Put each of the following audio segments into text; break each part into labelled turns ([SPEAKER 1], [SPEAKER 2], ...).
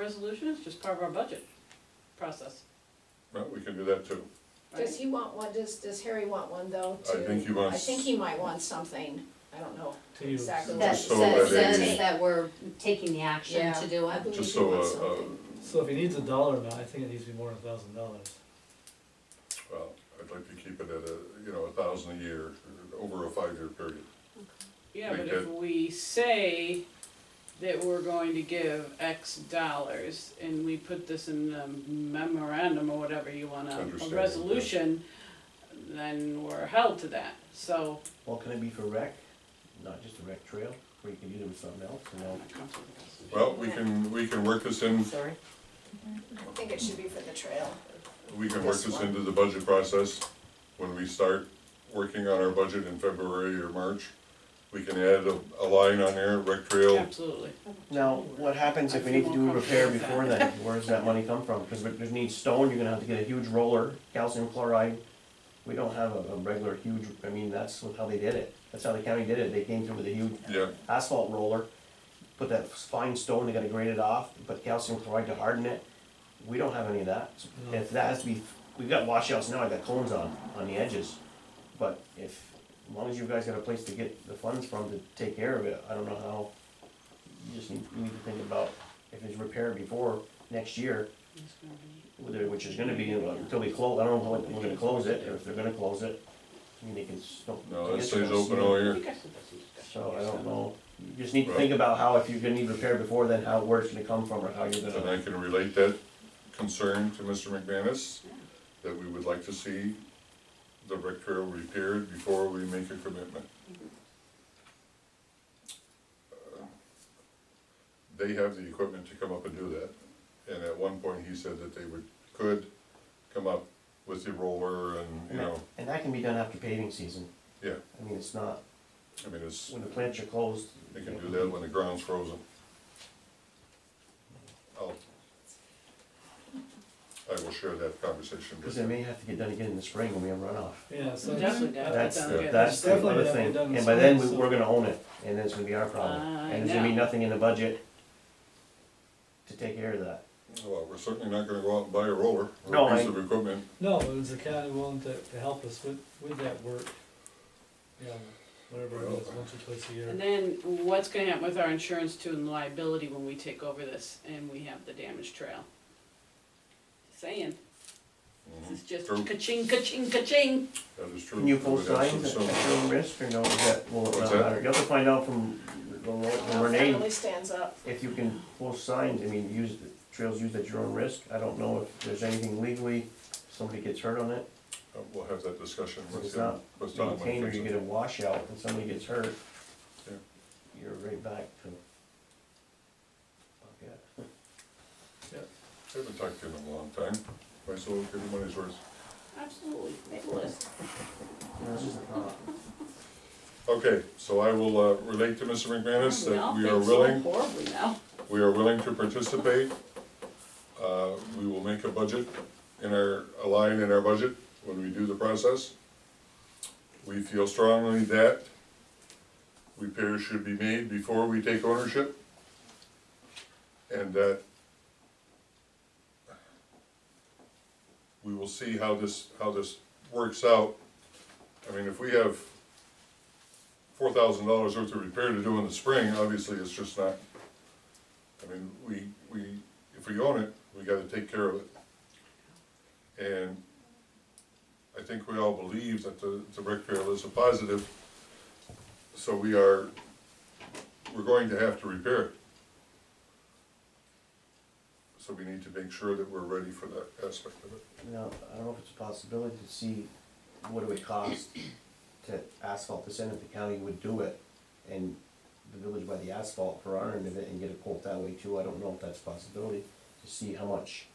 [SPEAKER 1] resolution, it's just part of our budget process.
[SPEAKER 2] Well, we can do that too.
[SPEAKER 1] right?
[SPEAKER 3] Does he want one, does, does Harry want one though?
[SPEAKER 2] I
[SPEAKER 3] to-
[SPEAKER 2] think he
[SPEAKER 3] I
[SPEAKER 2] wants-
[SPEAKER 3] think he might want something, I don't know
[SPEAKER 4] To use.
[SPEAKER 3] exactly. what
[SPEAKER 5] That
[SPEAKER 2] Just so
[SPEAKER 5] says,
[SPEAKER 2] that it-
[SPEAKER 5] says that we're taking the action to do
[SPEAKER 3] I
[SPEAKER 5] it.
[SPEAKER 3] believe
[SPEAKER 2] Just
[SPEAKER 3] he
[SPEAKER 2] so,
[SPEAKER 3] wants
[SPEAKER 2] uh, uh,
[SPEAKER 3] something.
[SPEAKER 4] So if he needs a dollar amount, I think it needs to be more than a thousand dollars.
[SPEAKER 2] Well, I'd like to keep it at a, you know, a thousand a year, over a five-year period.
[SPEAKER 1] Yeah, but
[SPEAKER 2] Make
[SPEAKER 1] if
[SPEAKER 2] it-
[SPEAKER 1] we say that we're going to give X dollars and we put this in a memorandum or whatever you wanna, a
[SPEAKER 2] Understand, yeah.
[SPEAKER 1] resolution, then we're held to that, so.
[SPEAKER 6] Well, can it be for rec, not just a rec trail, where you can do it with something else, you know?
[SPEAKER 2] Well, we can, we can work this in,
[SPEAKER 5] Sorry.
[SPEAKER 3] I think it should be for the trail.
[SPEAKER 2] we can work this into the budget process. When we start working on our budget in February or March, we can add a, a line on there, rec trail.
[SPEAKER 1] Absolutely.
[SPEAKER 6] Now, what happens if we need to do a repair before then, where does that money come from? Cause if there's need stone, you're gonna have to get a huge roller, calcium chloride. We don't have a, a regular huge, I mean, that's how they did it, that's how the county did it, they came through with a huge
[SPEAKER 2] Yeah,
[SPEAKER 6] asphalt roller, put that fine stone, they gotta grade it off, put calcium chloride to harden it. We don't have any of that.
[SPEAKER 4] No.
[SPEAKER 6] If that has to be, we've got washouts now, I've got cones on, on the edges. But if, as long as you guys got a place to get the funds from to take care of it, I don't know how. You just need, you need to think about if it's repaired before next year,
[SPEAKER 1] It's gonna be-
[SPEAKER 6] whether- which is gonna be until we close, I don't know when we're gonna close it, or if they're gonna close it. I mean, they can still.
[SPEAKER 2] no,
[SPEAKER 6] I
[SPEAKER 2] that
[SPEAKER 6] guess they're
[SPEAKER 2] stays
[SPEAKER 6] gonna
[SPEAKER 2] open
[SPEAKER 6] seal it.
[SPEAKER 2] all
[SPEAKER 1] I
[SPEAKER 2] year.
[SPEAKER 1] think I said this in discussion.
[SPEAKER 6] So I
[SPEAKER 1] yes,
[SPEAKER 6] don't
[SPEAKER 1] so-
[SPEAKER 6] know, you just need to
[SPEAKER 2] Right.
[SPEAKER 6] think about how, if you're gonna need repair before then, how, where it's gonna come from, or how you're
[SPEAKER 2] And
[SPEAKER 6] gonna.
[SPEAKER 2] I can relate that concern to Mr. McManus, that we would like to see the rec trail repaired before we make a commitment. Uh, They have the equipment to come up and do that, and at one point he said that they would, could come up with the roller and, you
[SPEAKER 6] And that-
[SPEAKER 2] know,
[SPEAKER 6] and that can be done after paving season,
[SPEAKER 2] yeah,
[SPEAKER 6] I mean, it's not,
[SPEAKER 2] I mean, it's,
[SPEAKER 6] when the plants are closed.
[SPEAKER 2] they can do that when the ground's frozen. I'll, I will share that conversation with
[SPEAKER 6] Cause
[SPEAKER 2] you.
[SPEAKER 6] it may have to get done again in the spring when we have runoff.
[SPEAKER 4] Yeah, so.
[SPEAKER 1] Definitely got it
[SPEAKER 6] That's,
[SPEAKER 1] done again.
[SPEAKER 6] that's the
[SPEAKER 4] Definitely
[SPEAKER 6] other
[SPEAKER 4] have to be
[SPEAKER 6] thing,
[SPEAKER 4] done in
[SPEAKER 6] and by then, we,
[SPEAKER 4] spring, so-
[SPEAKER 6] we're gonna own it, and then it's gonna be our problem,
[SPEAKER 1] I
[SPEAKER 6] and there's gonna be
[SPEAKER 1] know.
[SPEAKER 6] nothing in the budget to take care of that.
[SPEAKER 2] Well, we're certainly not gonna go out and buy a roller
[SPEAKER 6] No,
[SPEAKER 2] or a piece
[SPEAKER 6] I-
[SPEAKER 2] of equipment.
[SPEAKER 4] No, but is the county willing to, to help us with, with that work? Yeah, whatever it is, once or twice a
[SPEAKER 1] And
[SPEAKER 4] year.
[SPEAKER 1] then what's gonna happen with our insurance too and liability when we take over this and we have the damaged trail? Saying, this is just
[SPEAKER 2] True.
[SPEAKER 1] ka-ching, ka-ching, ka-ching.
[SPEAKER 2] Mm-hmm, That is true.
[SPEAKER 6] Can you pull
[SPEAKER 2] We have some-
[SPEAKER 6] signs at
[SPEAKER 2] some-
[SPEAKER 6] your own risk, or no, is that, will it
[SPEAKER 2] What's
[SPEAKER 6] not
[SPEAKER 2] that?
[SPEAKER 6] matter? You'll have to find out from from
[SPEAKER 3] Well,
[SPEAKER 6] Renee.
[SPEAKER 3] Finally stands up.
[SPEAKER 6] if you can post signs, I mean, use, the trails used at your own risk, I don't know if there's anything legally, somebody gets hurt on it,
[SPEAKER 2] uh, We'll have that discussion with
[SPEAKER 6] It's
[SPEAKER 2] him,
[SPEAKER 6] not
[SPEAKER 2] with Tom.
[SPEAKER 6] maintained, or you get
[SPEAKER 2] It
[SPEAKER 6] a washout, and somebody gets hurt,
[SPEAKER 2] Yeah.
[SPEAKER 6] you're right back to. Okay.
[SPEAKER 2] Haven't talked to him in a long time, might as well give him money's worth.
[SPEAKER 1] Absolutely, make a list.
[SPEAKER 6] No, this is a thought.
[SPEAKER 2] Okay, so I will, uh, relate to Mr. McManus that we are willing,
[SPEAKER 1] Horribly now.
[SPEAKER 2] we are willing to participate. Uh, we will make a budget in our, a line in our budget when we do the process. We feel strongly that repairs should be made before we take ownership. And that we will see how this, how this works out. I mean, if we have four thousand dollars worth of repair to do in the spring, obviously it's just not I mean, we, we, if we own it, we gotta take care of it. And I think we all believe that the, the rec trail is a positive, so we are, we're going to have to repair it. So we need to make sure that we're ready for that aspect of it.
[SPEAKER 6] Now, I don't know if it's a possibility to see what it would cost to asphalt this end, if the county would do it, and the village by the asphalt for our end of it, and get a quote that way too, I don't know if that's a possibility, to see how much.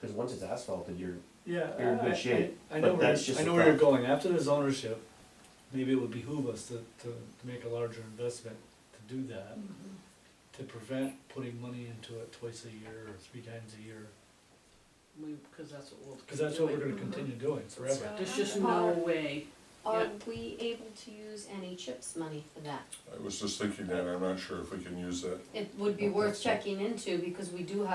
[SPEAKER 6] Cause once it's asphalted, you're,
[SPEAKER 4] Yeah.
[SPEAKER 6] You're in
[SPEAKER 4] I-
[SPEAKER 6] good
[SPEAKER 4] I-
[SPEAKER 6] shape,
[SPEAKER 4] I know
[SPEAKER 6] but
[SPEAKER 4] where,
[SPEAKER 6] that's
[SPEAKER 4] you're-
[SPEAKER 6] just
[SPEAKER 4] I
[SPEAKER 6] a
[SPEAKER 4] know where you're
[SPEAKER 6] thought.
[SPEAKER 4] going, after there's ownership, maybe it would behoove us to, to, to make a larger investment to do that.
[SPEAKER 1] Mm-hmm.
[SPEAKER 4] To prevent putting money into it twice a year or three times a year,
[SPEAKER 1] We, cause that's what we'll.
[SPEAKER 4] cause that's what we're gonna
[SPEAKER 1] do.
[SPEAKER 4] continue doing forever.
[SPEAKER 1] There's just no way.
[SPEAKER 5] Are
[SPEAKER 1] Yep.
[SPEAKER 5] we able to use any CHIPS money for that?
[SPEAKER 2] I was just thinking that, I'm not sure if we can use that.
[SPEAKER 5] It would be
[SPEAKER 6] Okay,
[SPEAKER 5] worth
[SPEAKER 6] so-
[SPEAKER 5] checking into because we do have